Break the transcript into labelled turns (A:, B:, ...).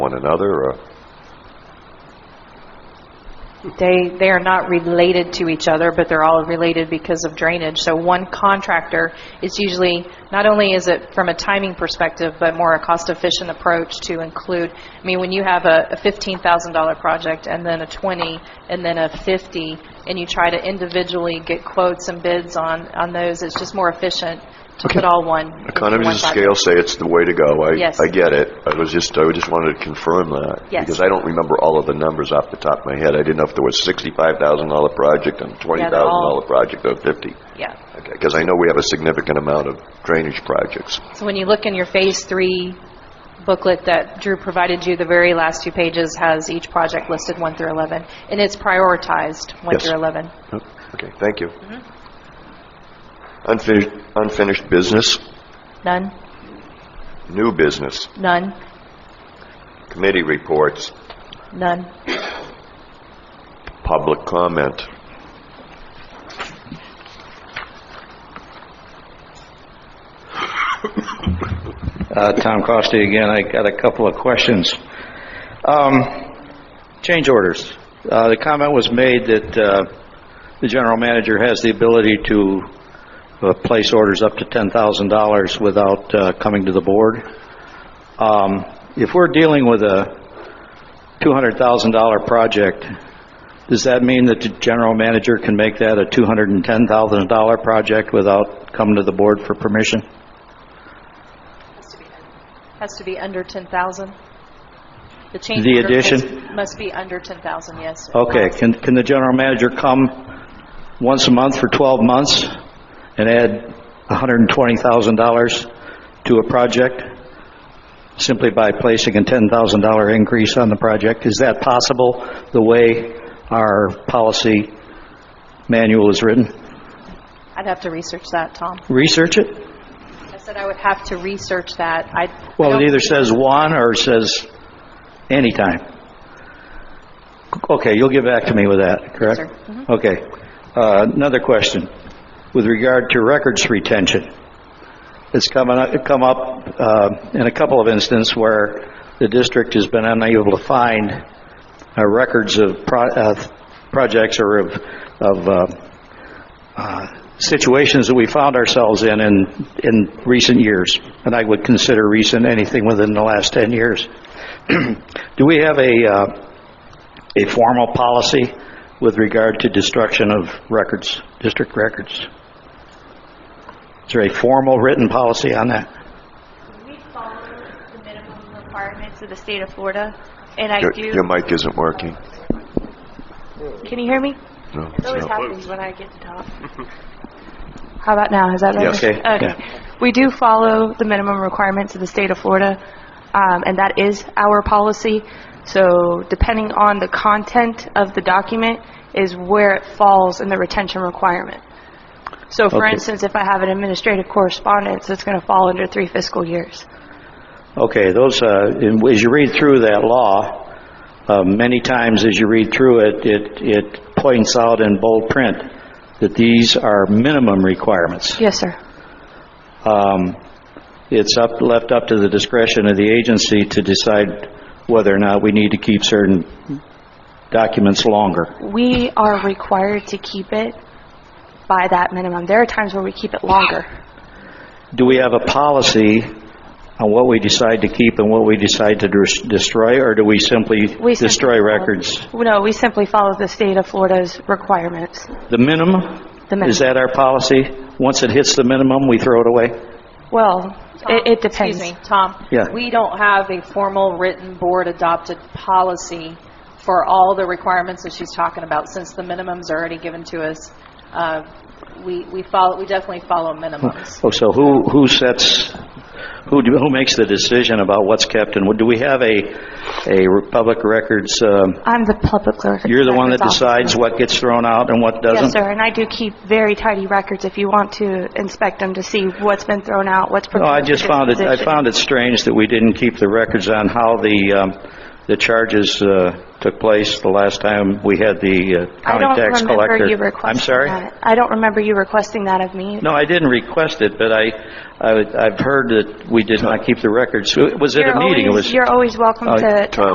A: one another, or?
B: They, they are not related to each other, but they're all related because of drainage. So one contractor, it's usually, not only is it from a timing perspective, but more a cost-efficient approach to include, I mean, when you have a a $15,000 project, and then a 20, and then a 50, and you try to individually get quotes and bids on, on those, it's just more efficient to put all one. into
A: Economies
B: one
A: of
B: bucket.
A: scale say it's the way to go. I-
B: Yes.
A: I get it. I was just, I just wanted to confirm that.
B: Yes.
A: Because I don't remember all of the numbers off the top of my head. I didn't know if there was $65,000 project and
B: they're all-
A: $20,000 project or 50.
B: Yeah.
A: Because I know we have a significant amount of drainage projects.
B: So when you look in your Phase 3 booklet that Drew provided you, the very last two pages has each project listed 1 through 11, and it's prioritized 1
A: Yes.
B: through 11.
A: Okay, thank you.
B: Mm-hmm.
A: Unfinished, unfinished business,
B: None?
A: new business,
B: None?
A: committee reports,
B: None?
A: public comment.
C: Uh, Tom Costi again. I got a couple of questions. Um, Change orders. Uh, The comment was made that uh, the general manager has the ability to uh, place orders up to $10,000 without uh, coming to the board. Um, If we're dealing with a $200,000 project, does that mean that the general manager can make that a $210,000 project without coming to the board for permission?
B: Has to be under 10,000? The change
C: The
B: order
C: addition?
B: must- Must be under 10,000, yes.
C: Okay, can, can the general manager come once a month for 12 months and add $120,000 to a project simply by placing a $10,000 increase on the project? Is that possible, the way our policy manual is written?
B: I'd have to research that, Tom.
C: Research it?
B: I said I would have to research that. I I
C: Well,
B: don't-
C: it either says one or it says anytime. Okay, you'll get back to me with that, correct?
B: sir.
C: Okay. Uh, Another question, with regard to records retention. It's coming up- come up uh, in a couple of instances where the district has been unable to find uh, records of pro- uh, projects or of of, uh, situations that we found ourselves in in, in recent years, and I would consider recent anything within the last 10 years. Do we have a, uh, a formal policy with regard to destruction of records, district records? Is there a formal written policy on that?
D: We follow the minimum requirements of the state of Florida, and I
A: Your
D: do,
A: your mic isn't working.
D: can you hear me?
A: No,
D: It always
A: no.
D: happens when I get to talk. How about now, is that better?
A: Yes.
C: Okay,
D: Okay. We do follow the minimum requirements of the state of Florida, um, and that is our policy. So depending on the content of the document is where it falls in the retention requirement. So for
C: Okay.
D: instance, if I have an administrative correspondence, it's going to fall under three fiscal years.
C: Okay, those, uh, in- as you read through that law, uh, many times as you read through it, it, it points out in bold print that these are minimum requirements.
D: Yes, sir.
C: Um, It's up, left up to the discretion of the agency to decide whether or not we need to keep certain documents longer.
D: We are required to keep it by that minimum. There are times where we keep it longer.
C: Do we have a policy on what we decide to keep and what we decide to des- destroy, or do we simply
D: We simply
C: destroy
D: follow-
C: records?
D: No, we simply follow the state of Florida's requirements.
C: The minimum?
D: The minimum.
C: Is that our policy? Once it hits the minimum, we throw it away?
D: Well, it it depends.
B: Excuse me, Tom.
C: Yeah.
B: We don't have a formal written board-adopted policy for all the requirements that she's talking about, since the minimums are already given to us. Uh, We we follow, we definitely follow minimums.
C: Oh, so who, who sets, who, do- who makes the decision about what's kept and what? Do we have a, a public records, um,
D: I'm the public clerk.
C: you're the one that
D: records officer.
C: decides what gets thrown out and what doesn't?
D: Yes, sir, and I do keep very tidy records if you want to inspect them to see what's been thrown out, what's
C: No, I
D: proposed for
C: just found it, I
D: disposition.
C: found it strange that we didn't keep the records on how the um, the charges uh, took place the last time we had the uh,
D: I
C: county
D: don't
C: tax collector.
D: remember you
C: I'm
D: requesting
C: sorry?
D: that. I don't remember you requesting that of me.
C: No, I didn't request it, but I, I would- I've heard that we did not keep the records. Was it
D: You're
C: a meeting? It
D: always-
C: was-
D: You're always welcome
C: Oh,
D: to to